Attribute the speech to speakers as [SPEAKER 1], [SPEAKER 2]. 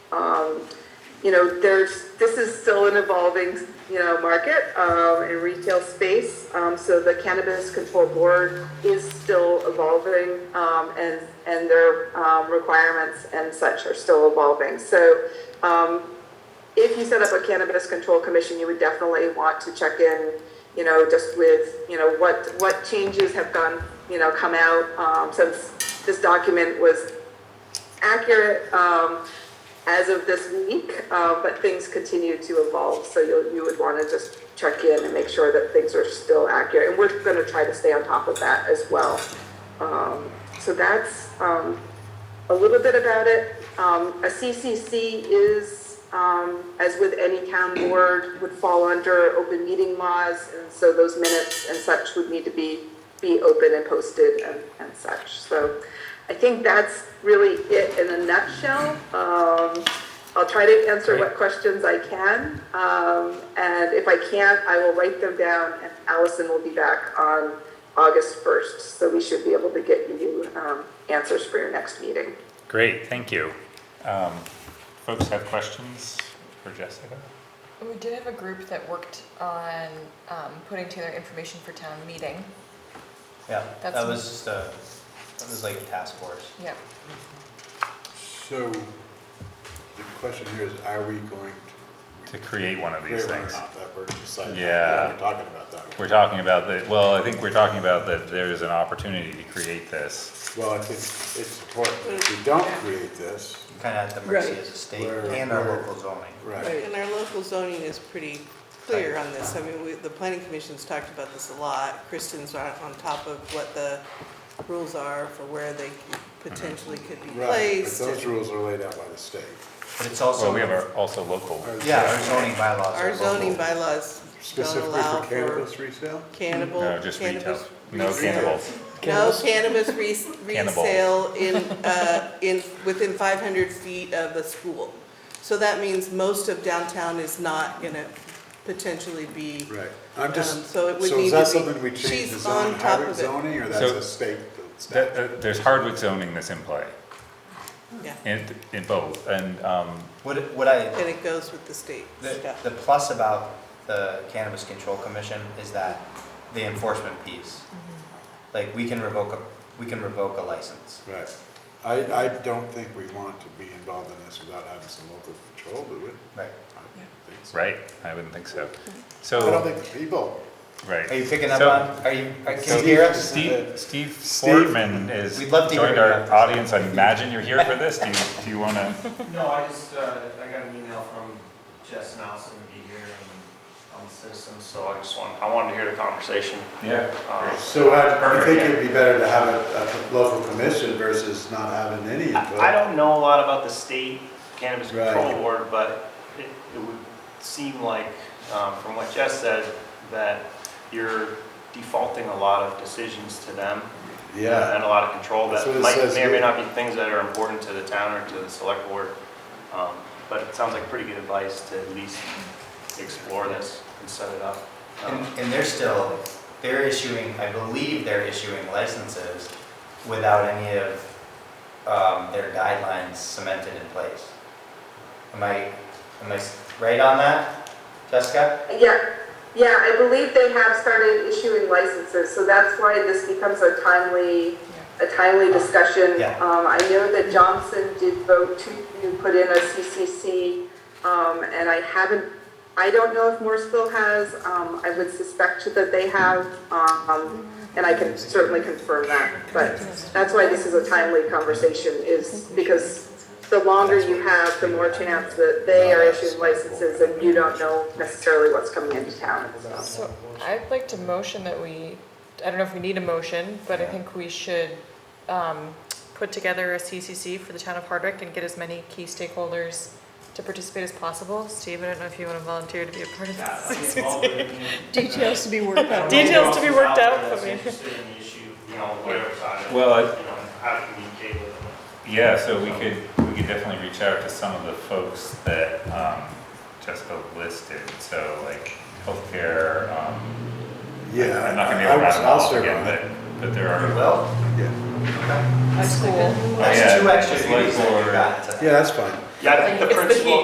[SPEAKER 1] you know, there's, this is still an evolving, you know, market, um, in retail space. Um, so the Cannabis Control Board is still evolving, um, and, and their, um, requirements and such are still evolving. So, um, if you set up a cannabis control commission, you would definitely want to check in, you know, just with, you know, what, what changes have gone, you know, come out, um, since this document was accurate, um, as of this week, uh, but things continue to evolve, so you'll, you would wanna just check in and make sure that things are still accurate, and we're gonna try to stay on top of that as well. Um, so that's, um, a little bit about it. Um, a CCC is, um, as with any town board, would fall under open meeting laws, and so those minutes and such would need to be, be open and posted and, and such. So I think that's really it in a nutshell. Um, I'll try to answer what questions I can, um, and if I can't, I will write them down, and Allison will be back on August 1st, so we should be able to get you, um, answers for your next meeting.
[SPEAKER 2] Great, thank you. Um, Folks have questions for Jessica?
[SPEAKER 3] We did have a group that worked on um, putting together information for town meeting.
[SPEAKER 4] Yeah, that
[SPEAKER 3] That's-
[SPEAKER 4] was just a, that was like a task force.
[SPEAKER 3] Yeah,
[SPEAKER 5] So, the question here is, are we going
[SPEAKER 2] To create one of
[SPEAKER 5] to
[SPEAKER 2] these
[SPEAKER 5] create one or
[SPEAKER 2] things?
[SPEAKER 5] not, that we're deciding,
[SPEAKER 2] Yeah.
[SPEAKER 5] we're talking about that.
[SPEAKER 2] We're talking about that, well, I think we're talking about that there is an opportunity to create this.
[SPEAKER 5] Well, I think it's important, if we don't create this,
[SPEAKER 4] We're Kind of at the mercy
[SPEAKER 6] Right.
[SPEAKER 4] of the state
[SPEAKER 5] We're-
[SPEAKER 4] and our
[SPEAKER 5] we're-
[SPEAKER 4] local zoning.
[SPEAKER 5] right,
[SPEAKER 6] And our local zoning is pretty clear on this. I mean, we, the planning commission's talked about this a lot. Kristen's on, on top of what the rules are for where they potentially could be
[SPEAKER 5] right, but
[SPEAKER 6] placed.
[SPEAKER 5] those rules are laid out by the state.
[SPEAKER 4] But it's also.
[SPEAKER 2] Well, we have our, also local,
[SPEAKER 4] Yeah, our zoning bylaws are
[SPEAKER 6] Our
[SPEAKER 4] local.
[SPEAKER 6] zoning bylaws don't
[SPEAKER 5] Specifically
[SPEAKER 6] allow
[SPEAKER 5] for
[SPEAKER 6] for
[SPEAKER 5] cannabis resale?
[SPEAKER 6] cannibal,
[SPEAKER 2] no, just retail,
[SPEAKER 6] cannabis.
[SPEAKER 2] no
[SPEAKER 6] resale.
[SPEAKER 2] cannibals.
[SPEAKER 6] No cannabis res-
[SPEAKER 2] Cannibal.
[SPEAKER 6] resale in, uh, in, within five hundred feet of a school. So that means most of downtown is not gonna potentially be.
[SPEAKER 5] Right, I'm
[SPEAKER 6] Um,
[SPEAKER 5] just, so
[SPEAKER 6] so it would need
[SPEAKER 5] is that
[SPEAKER 6] to be-
[SPEAKER 5] something we change the
[SPEAKER 6] she's on
[SPEAKER 5] zoning,
[SPEAKER 6] top
[SPEAKER 5] Hardwick
[SPEAKER 6] of it.
[SPEAKER 5] zoning, or that's
[SPEAKER 2] So-
[SPEAKER 5] a state statute?
[SPEAKER 2] That- uh, There's hardwood zoning that's in play,
[SPEAKER 6] Yeah,
[SPEAKER 2] in, in both, and, um,
[SPEAKER 4] What, what I,
[SPEAKER 6] and it goes with the state
[SPEAKER 4] The,
[SPEAKER 6] stuff.
[SPEAKER 4] the plus about the Cannabis Control Commission is that the enforcement piece. Like, we can revoke a, we can revoke a license.
[SPEAKER 5] Right, I, I don't think we want to be involved in this without having some local control, do we?
[SPEAKER 4] Right.
[SPEAKER 5] I don't think so.
[SPEAKER 2] right? I wouldn't think so.
[SPEAKER 5] I don't
[SPEAKER 2] So,
[SPEAKER 5] think the people
[SPEAKER 2] right.
[SPEAKER 4] Are you picking up
[SPEAKER 2] So-
[SPEAKER 4] on, are you, are- can
[SPEAKER 2] So
[SPEAKER 4] you hear us?
[SPEAKER 2] Steve, Steve
[SPEAKER 5] Steve?
[SPEAKER 2] Fortman is
[SPEAKER 4] We'd love to hear
[SPEAKER 2] joined
[SPEAKER 4] you.
[SPEAKER 2] our audience. I imagine you're here for this. Do you, do you want to?
[SPEAKER 7] No, I just, uh, I got an email from Jess Nelson to be here and on the system, so I just want, I wanted to hear the conversation.
[SPEAKER 2] Yeah.
[SPEAKER 7] Um,
[SPEAKER 5] So I I
[SPEAKER 7] Perfect,
[SPEAKER 5] think
[SPEAKER 7] yeah.
[SPEAKER 5] it'd be better to have a, a local commission versus not having any input.
[SPEAKER 7] I I don't know a lot about the state cannabis
[SPEAKER 5] Right.
[SPEAKER 7] control board, but it, it would seem like, um, from what Jess said, that you're defaulting a lot of decisions to them.
[SPEAKER 5] Yeah,
[SPEAKER 7] And a lot of control
[SPEAKER 5] That's
[SPEAKER 7] that
[SPEAKER 5] what it
[SPEAKER 7] might,
[SPEAKER 5] says
[SPEAKER 7] may or may
[SPEAKER 5] here.
[SPEAKER 7] not be things that are important to the town or to the select board. Um, But it sounds like pretty good advice to at least explore this and set it up. Um,
[SPEAKER 4] And, and they're still, they're issuing, I believe they're issuing licenses without any of, um, their guidelines cemented in place. Am I, am I s- right on that, Jessica?
[SPEAKER 1] Yeah, yeah, I believe they have started issuing licenses, so that's why this becomes a timely, a timely discussion.
[SPEAKER 4] Yeah.
[SPEAKER 1] Um, I know that Johnson did vote to put in a CCC, um, and I haven't, I don't know if Morrisville has, um, I would suspect that they have, um, and I can certainly confirm that, but that's why this is a timely conversation, is because the longer you have, the more chance that they are issuing licenses and you don't know necessarily what's coming into town.
[SPEAKER 3] so I'd like to motion that we, I don't know if we need a motion, but I think we should um, put together a CCC for the town of Hardwick and get as many key stakeholders to participate as possible. Steve, I don't know if you want to volunteer to be a part of this.
[SPEAKER 6] Details to be worked
[SPEAKER 7] I don't know
[SPEAKER 3] Details to be worked
[SPEAKER 7] who's out there
[SPEAKER 3] out,
[SPEAKER 7] that's
[SPEAKER 3] I mean.
[SPEAKER 7] interested in the issue, you know, whatever side of it,
[SPEAKER 2] Well, I-
[SPEAKER 7] you know, how to communicate with them.
[SPEAKER 2] Yeah. So we could we could definitely reach out to some of the folks that um, Jessica listed. So like healthcare. Um,
[SPEAKER 5] yeah.
[SPEAKER 2] I'm not going to be
[SPEAKER 5] I- I
[SPEAKER 2] able to
[SPEAKER 5] would-
[SPEAKER 2] rattle
[SPEAKER 5] I'll
[SPEAKER 2] them off
[SPEAKER 5] serve
[SPEAKER 2] again,
[SPEAKER 5] on it.
[SPEAKER 2] but, but there
[SPEAKER 4] You
[SPEAKER 2] are.
[SPEAKER 4] will?
[SPEAKER 5] Yeah,
[SPEAKER 4] Okay.
[SPEAKER 3] School.
[SPEAKER 2] Oh, yeah,
[SPEAKER 4] That's two extra
[SPEAKER 2] just
[SPEAKER 4] duties that you
[SPEAKER 2] whiteboard.
[SPEAKER 4] got today.
[SPEAKER 5] yeah, that's fine.
[SPEAKER 7] Yeah, I think the
[SPEAKER 3] It's the
[SPEAKER 7] principal,